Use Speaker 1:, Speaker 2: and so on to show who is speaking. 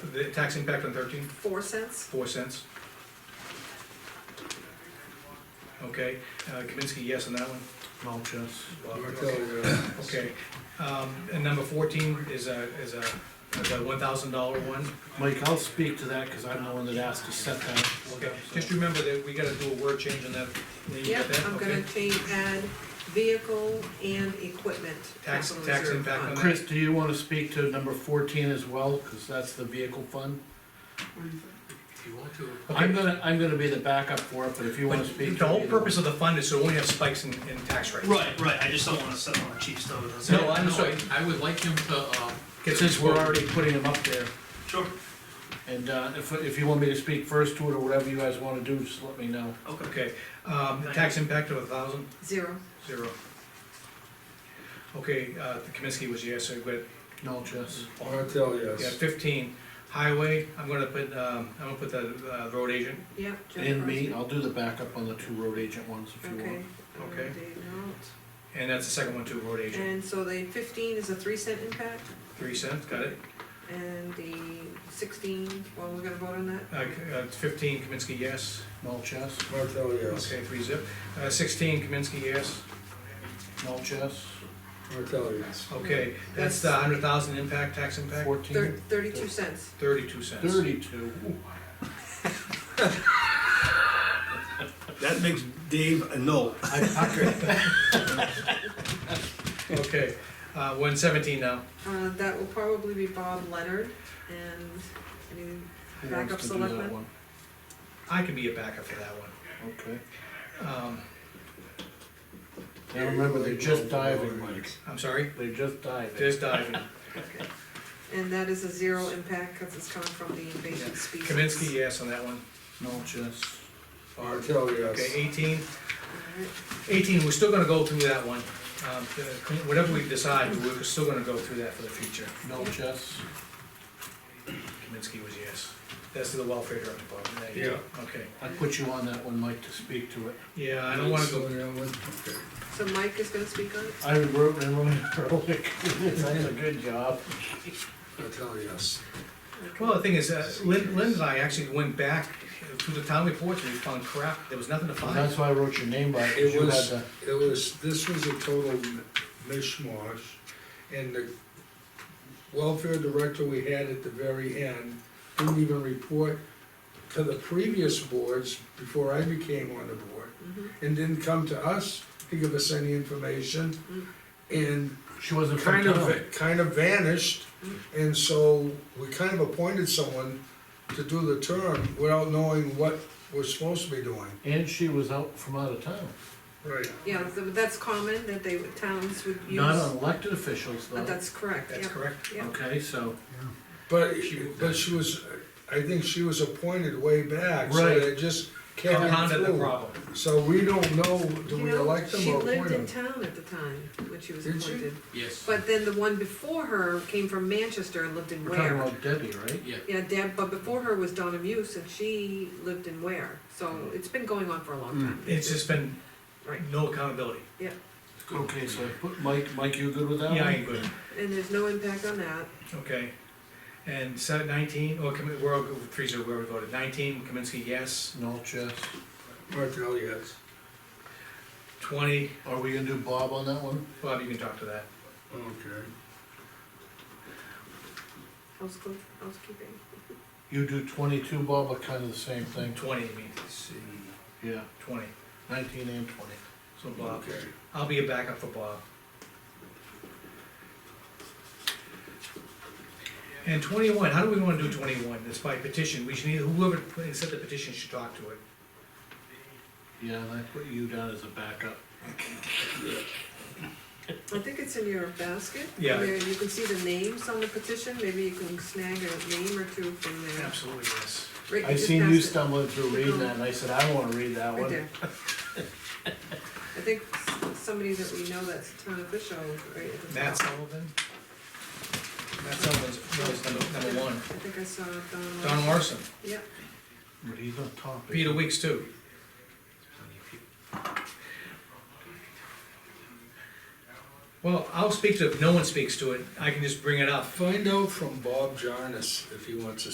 Speaker 1: the tax impact on thirteen?
Speaker 2: four cents?
Speaker 1: Four cents. Okay, uh, Kaminsky, yes on that one?
Speaker 3: Mulch, yes.
Speaker 1: Okay, um, and number fourteen is a, is a, is a one thousand dollar one.
Speaker 3: Mike, I'll speak to that, cause I'm the one that asked to set that.
Speaker 1: Okay, just remember that we gotta do a word change on that. Lean, you got
Speaker 2: Yep,
Speaker 1: that?
Speaker 2: I'm
Speaker 1: Okay.
Speaker 2: gonna change, add vehicle and equipment.
Speaker 1: Tax-
Speaker 2: capital
Speaker 1: tax
Speaker 2: reserve
Speaker 1: impact
Speaker 2: fund.
Speaker 1: on
Speaker 3: Chris, do you wanna speak to number fourteen as well, cause that's the vehicle fund?
Speaker 4: If you want to,
Speaker 3: I'm gonna, I'm gonna be the backup for it, but if you wanna
Speaker 1: But
Speaker 3: speak.
Speaker 1: The whole purpose of the fund is so we won't have spikes in, in tax rates.
Speaker 5: Right, right, I just don't wanna settle on a cheap stove, that's
Speaker 1: No,
Speaker 5: it.
Speaker 1: I'm sorry.
Speaker 4: I I would like him to, uh,
Speaker 1: Get
Speaker 3: Since we're already putting them up there,
Speaker 5: Sure,
Speaker 3: and, uh, if, if you want me to speak first to it or whatever you guys wanna do, just let me know.
Speaker 5: okay.
Speaker 1: Okay, um, tax impact of a thousand,
Speaker 2: Zero,
Speaker 1: zero. Okay, uh, Kaminsky was yes, so good.
Speaker 3: Mulch, yes.
Speaker 6: Martel,
Speaker 1: Yeah,
Speaker 6: yes.
Speaker 1: fifteen, highway, I'm gonna put, um, I'm gonna put the, uh, road agent,
Speaker 2: yep. Jeff
Speaker 3: And me,
Speaker 2: Rossi.
Speaker 3: I'll do the backup on the two road agent ones if you
Speaker 2: Okay.
Speaker 3: want.
Speaker 1: Okay.
Speaker 2: Uh, Dave Nolte.
Speaker 1: and that's the second one too, road agent.
Speaker 2: And so the fifteen is a three cent impact,
Speaker 1: Three cents, got it?
Speaker 2: and the sixteen, well, we're gonna vote on that?
Speaker 1: Uh, c- uh, fifteen, Kaminsky, yes.
Speaker 3: Mulch, yes.
Speaker 6: Martel, yes.
Speaker 1: Okay, three zip. Uh, sixteen, Kaminsky, yes.
Speaker 3: Mulch, yes.
Speaker 6: Martel, yes.
Speaker 1: Okay, that's the hundred thousand impact, tax impact,
Speaker 2: Thir-
Speaker 3: Fourteen.
Speaker 2: thirty-two cents,
Speaker 1: thirty-two cents.
Speaker 3: Thirty-two. Ooh.
Speaker 7: That makes Dave a no.
Speaker 3: I puckered.
Speaker 1: Okay, uh, one seventeen now.
Speaker 2: uh, that will probably be Bob Leonard, and, I mean,
Speaker 3: Who
Speaker 2: Backup
Speaker 3: wants to do
Speaker 2: selectman?
Speaker 3: that one?
Speaker 1: I can be a backup for that one.
Speaker 3: Okay.
Speaker 1: Um,
Speaker 3: Now remember, they're just diving, Mike.
Speaker 1: I'm sorry?
Speaker 3: They're just diving.
Speaker 1: Just diving.
Speaker 2: and that is a zero impact, cause it's coming from the invasive species.
Speaker 1: Kaminsky, yes on that one.
Speaker 3: Mulch, yes.
Speaker 6: Martel,
Speaker 1: Okay,
Speaker 6: yes.
Speaker 1: eighteen.
Speaker 2: Alright.
Speaker 1: Eighteen, we're still gonna go through that one. Um, the- Whatever we decide, we're still gonna go through that for the future.
Speaker 3: Mulch, yes.
Speaker 1: Kaminsky was yes. That's to the welfare department. there you go. Okay.
Speaker 3: I put you on that one, Mike, to speak to it.
Speaker 1: Yeah, I don't wanna
Speaker 6: So,
Speaker 1: go,
Speaker 6: yeah, one- okay.
Speaker 2: So Mike is gonna speak on it?
Speaker 3: I wrote and wrote it early. That's a good job.
Speaker 6: Martel, yes.
Speaker 1: well, the thing is, uh, Lynn, Lynn and I actually went back through the town reports and we found crap. There was nothing to
Speaker 3: And
Speaker 1: find.
Speaker 3: that's why I wrote your name by it, 'cause
Speaker 6: It
Speaker 3: you
Speaker 6: was-
Speaker 3: had
Speaker 6: It was, this was a total mishmash, and the welfare director we had at the very end didn't even report to the previous boards before I became on the board,
Speaker 2: Mhm.
Speaker 6: and didn't come to us to give us any information,
Speaker 1: Mm-hmm.
Speaker 6: and
Speaker 3: the, she wasn't from
Speaker 6: kind of,
Speaker 3: town.
Speaker 6: kind of vanished, and so we kind of appointed someone to do the term without knowing what we're supposed to be doing.
Speaker 3: And she was out from out of town.
Speaker 6: Right.
Speaker 2: Yeah, th- that's common, that they, would- towns would use.
Speaker 3: Not on elected officials,
Speaker 2: Uh,
Speaker 3: though.
Speaker 2: That's correct,
Speaker 1: That's
Speaker 2: yeah,
Speaker 1: correct.
Speaker 2: yeah.
Speaker 3: Okay, so,
Speaker 6: But, but she was, I think she was appointed way back, so
Speaker 3: Right.
Speaker 6: they just carried
Speaker 1: Compounded the
Speaker 6: through.
Speaker 1: problem.
Speaker 6: So we don't know, do
Speaker 2: You
Speaker 6: we
Speaker 2: know,
Speaker 6: elect them
Speaker 2: She
Speaker 6: or appoint
Speaker 2: lived in
Speaker 6: them?
Speaker 2: town at the time when she was
Speaker 6: Did she?
Speaker 2: appointed.
Speaker 4: yes,
Speaker 2: But then the one before her came from Manchester and lived in
Speaker 3: we're talking
Speaker 2: Ware.
Speaker 3: about Debbie, right?
Speaker 4: yeah.
Speaker 2: Yeah, Deb, but before her was Donna Muse and she lived in Ware. So it's been going on for a long time.
Speaker 1: It's just been
Speaker 2: Right.
Speaker 1: no accountability.
Speaker 4: it's good.
Speaker 3: Okay, so I put Mike, Mike, you good with that one?
Speaker 1: Yeah, I ain't good.
Speaker 2: And there's no impact on that.
Speaker 1: Okay, and set nineteen, oh, Kami- we're all, three zero, where we voted, nineteen, Kaminsky, yes,
Speaker 3: Mulch, yes.
Speaker 6: Martel, yes.
Speaker 1: twenty,
Speaker 3: Are we gonna do Bob on that one?
Speaker 1: Bob, you can talk to that.
Speaker 6: Okay.
Speaker 2: Houseco- Housekeeping.
Speaker 3: You do twenty-two, Bob, but kind of the same thing.
Speaker 1: Twenty, you mean,
Speaker 6: See,
Speaker 3: Yeah,
Speaker 1: twenty,
Speaker 3: nineteen and twenty.
Speaker 1: so Bob,
Speaker 6: okay.
Speaker 1: I'll be a backup for Bob. And twenty-one, how do we wanna do twenty-one, it's by petition, we should need, whoever put- set the petition should talk to it.
Speaker 3: Yeah, and I put you down as a backup.
Speaker 2: I think it's in your basket.
Speaker 1: Yeah.
Speaker 2: There, you can see the names on the petition. Maybe you can snag a name or two from there.
Speaker 1: Absolutely, yes.
Speaker 2: Rick,
Speaker 3: I
Speaker 2: just
Speaker 3: seen you
Speaker 2: passed it.
Speaker 3: stumbling through reading that, and I said, I don't wanna read that
Speaker 2: Right
Speaker 3: one.
Speaker 2: there. I think s- somebody that we know that's a town official, right? at the
Speaker 1: Matt
Speaker 2: top.
Speaker 1: Sullivan? Matt Sullivan's, was number, number one,
Speaker 2: I think I saw Don.
Speaker 1: Don Larson,
Speaker 2: Yeah,
Speaker 3: But he's on top. isn't he?
Speaker 1: Peter Weeks too. Well, I'll speak to, it. if no one speaks to it, I can just bring it up.
Speaker 6: Find out from Bob Jarnes if he wants to